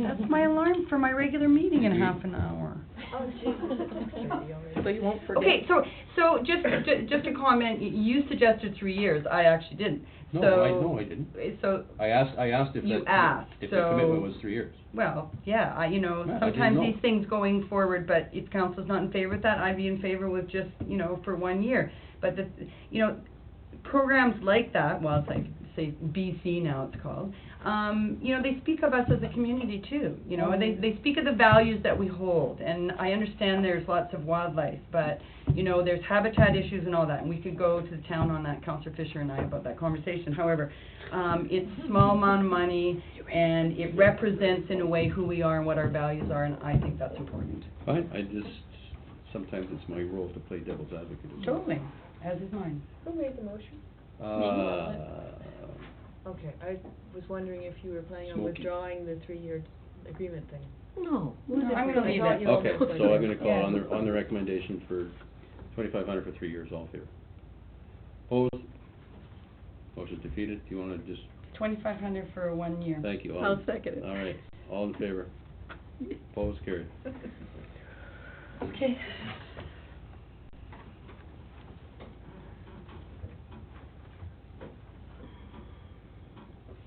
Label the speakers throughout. Speaker 1: That's my alarm for my regular meeting in half an hour.
Speaker 2: Oh, jeez.
Speaker 3: So you won't forget.
Speaker 1: Okay, so, so just, ju- just a comment, y- you suggested three years, I actually didn't, so. eh,
Speaker 4: No, I, no, I didn't.
Speaker 1: So,
Speaker 4: I asked, I asked if
Speaker 1: You
Speaker 4: that,
Speaker 1: asked,
Speaker 4: if
Speaker 1: so-
Speaker 4: that commitment was three years.
Speaker 1: well, yeah, I, you know,
Speaker 4: Yeah, I didn't
Speaker 1: sometimes
Speaker 4: know.
Speaker 1: these things going forward, but if council's not in favor of that, I'd be in favor with just, you know, for one year. But the, you know, programs like that, well, it's like, say, BC now it's called, um, you know, they speak of us as a community too, you know, they, they speak of the values that we hold, and I understand there's lots of wildlife, but, you know, there's habitat issues and all that, and we could go to the town on that, Counselor Fisher and I about that conversation, however, um, it's small amount of money, and it represents in a way who we are and what our values are, and I think that's important.
Speaker 4: Fine, I just, sometimes it's my role to play devil's advocate as well.
Speaker 1: Totally, as is mine.
Speaker 2: Who made the motion?
Speaker 4: Uh,
Speaker 2: Okay, I was wondering if you were planning on
Speaker 4: Smokey.
Speaker 2: withdrawing the three-year agreement thing.
Speaker 3: No.
Speaker 1: No, I'm gonna leave
Speaker 2: thought
Speaker 1: it.
Speaker 2: you
Speaker 4: Okay,
Speaker 2: were-
Speaker 4: so I'm gonna call on the,
Speaker 2: Yeah.
Speaker 4: on the recommendation for twenty-five hundred for three years, all in favor. Opposed? Motion's defeated, do you wanna just,
Speaker 1: Twenty-five hundred for one year.
Speaker 4: thank you, all.
Speaker 3: I'll second it.
Speaker 4: All right, all in favor? Opposed, carried.
Speaker 3: Okay.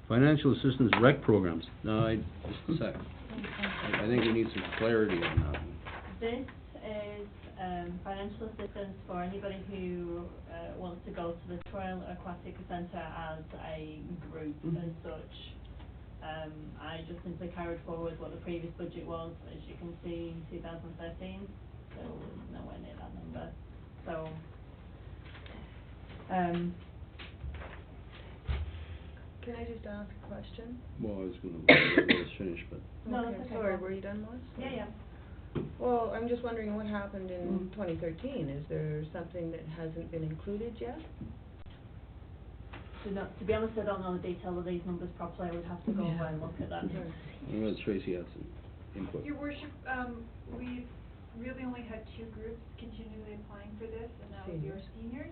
Speaker 4: Financial assistance rec programs, no, I, just a sec, I, I think we need some clarity on that one.
Speaker 5: This is um, financial assistance for anybody who uh, wants to go to the Royal Aquatic Centre as a group
Speaker 1: Mhm.
Speaker 5: as such. Um, I just simply carried forward what the previous budget was, as you can see, in 2013, so nowhere near that number. So, um,
Speaker 2: Can I just ask a question?
Speaker 4: Well, I was gonna, let us finish, but,
Speaker 5: No,
Speaker 2: Okay,
Speaker 5: that's
Speaker 2: Sorry,
Speaker 5: okay.
Speaker 2: were you done, Lois?
Speaker 5: yeah, yeah.
Speaker 2: Well, I'm just wondering what happened in
Speaker 1: Mm.
Speaker 2: twenty thirteen, is there something that hasn't been included yet?
Speaker 5: To not- to be honest, I don't know the detail of these numbers properly. I would have to go
Speaker 2: Yeah.
Speaker 5: and look at that.
Speaker 2: Sure.
Speaker 4: I'm gonna let Tracy have some input.
Speaker 6: Your worship, um, we've really only had two groups continually applying for this, and that was your
Speaker 2: Seniors.
Speaker 6: seniors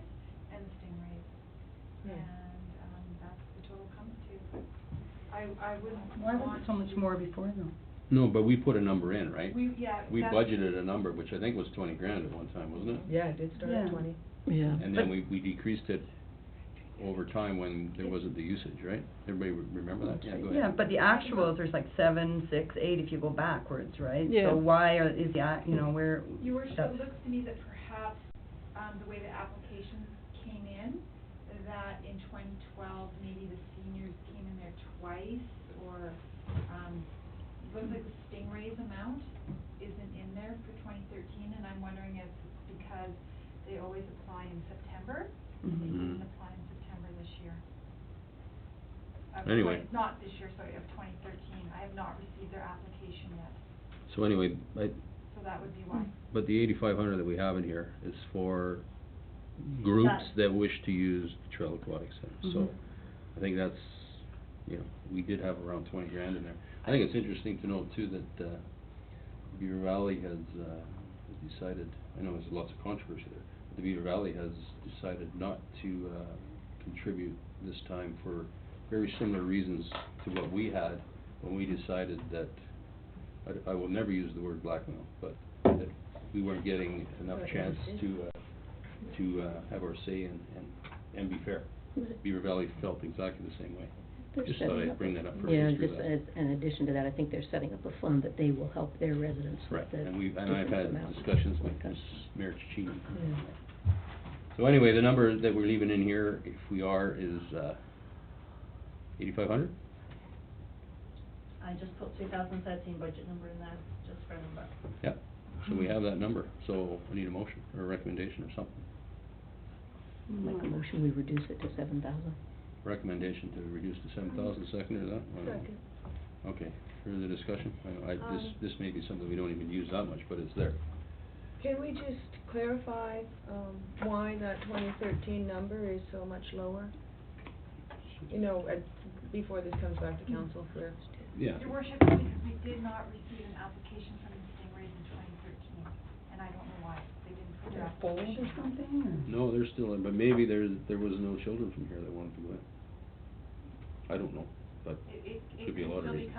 Speaker 6: and the stingrays.
Speaker 2: Yeah.
Speaker 6: And, um, that's the total comes to. I, I wouldn't
Speaker 1: Why was
Speaker 6: want
Speaker 1: it so much
Speaker 6: to-
Speaker 1: more before though?
Speaker 4: No, but we put a number in, right?
Speaker 6: We, yeah.
Speaker 4: We
Speaker 6: that's-
Speaker 4: budgeted a number, which I think was twenty grand at one time, wasn't it?
Speaker 2: Yeah, it did start at
Speaker 1: Yeah.
Speaker 2: twenty.
Speaker 3: Yeah.
Speaker 4: And then we, we decreased it over time when there wasn't the usage, right? Everybody re- remember that? Yeah, go ahead.
Speaker 1: Yeah, but the actuals, there's like seven, six, eight if you go backwards, right?
Speaker 3: Yeah.
Speaker 1: So why are, is the, act- you know, where?
Speaker 6: Your worship,
Speaker 1: that's-
Speaker 6: it looks to me that perhaps, um, the way the applications came in, that in twenty twelve, maybe the seniors came in there twice, or, um, it looks like the stingrays amount isn't in there for twenty thirteen, and I'm wondering if it's because they always apply in September, and they
Speaker 1: Mhm.
Speaker 4: Mhm.
Speaker 6: didn't apply in September this year. Of twen-
Speaker 4: Anyway.
Speaker 6: Not this year, sorry, of twenty thirteen, I have not received their application yet,
Speaker 4: So anyway, I,
Speaker 6: so that would be why.
Speaker 4: but the eighty-five hundred that we have in here is for groups
Speaker 5: That-
Speaker 4: that wish to use the Trail Aquatic Center. So
Speaker 1: Mhm.
Speaker 4: I think that's, you know, we did have around twenty grand in there. I think it's interesting to note too that, uh, Beaver Valley has, uh, decided, I know there's lots of controversy there, but the Beaver Valley has decided not to, uh, contribute this time for very similar reasons to what we had when we decided that, I, I will never use the word blackmail, but that we weren't getting enough
Speaker 2: Right,
Speaker 4: chance
Speaker 2: yeah.
Speaker 4: to, uh, to, uh, have our say and, and, and be fair. Beaver Valley felt exactly the same way.
Speaker 7: They're
Speaker 4: Just thought
Speaker 7: setting
Speaker 4: I'd
Speaker 7: up
Speaker 4: bring
Speaker 7: a-
Speaker 4: that up for
Speaker 7: Yeah,
Speaker 4: history
Speaker 7: just
Speaker 4: lesson.
Speaker 7: as, in addition to that, I think they're setting up a fund that they will help their residents
Speaker 4: Right,
Speaker 7: with the
Speaker 4: and we, and I've
Speaker 7: difference
Speaker 4: had
Speaker 7: amount.
Speaker 4: discussions with
Speaker 7: Okay.
Speaker 4: Ms. Mayor Chichini.
Speaker 2: Yeah.
Speaker 4: So anyway, the number that we're leaving in here, if we are, is, uh, eighty-five hundred?
Speaker 5: I just put 2013 budget number in there, just for a number.
Speaker 4: Yeah, so
Speaker 2: Mm-hmm.
Speaker 4: we have that number, so we need a motion or a recommendation or something.
Speaker 7: Make a motion, we reduce it to seven thousand.
Speaker 4: Recommendation to reduce to seven thousand, second or that? I don't know.
Speaker 2: Mm-hmm. Second.
Speaker 4: Okay, further discussion? I, I, this,
Speaker 2: Um,
Speaker 4: this may be something we don't even use that much, but it's there.
Speaker 2: Can we just clarify, um, why that twenty thirteen number is so much lower? You know, at, before this comes back to council for,
Speaker 4: Yeah.
Speaker 6: Your worship, because we did not receive an application from the Stingrays in twenty thirteen, and I don't know why, they didn't put their
Speaker 1: They're full
Speaker 6: application.
Speaker 1: or something,
Speaker 4: No, they're still in, but maybe there, there was no children from here that wanted to go in. I don't know, but
Speaker 6: It, it, it
Speaker 4: Could be a
Speaker 6: can
Speaker 4: lot of
Speaker 6: still
Speaker 4: reasons.
Speaker 6: be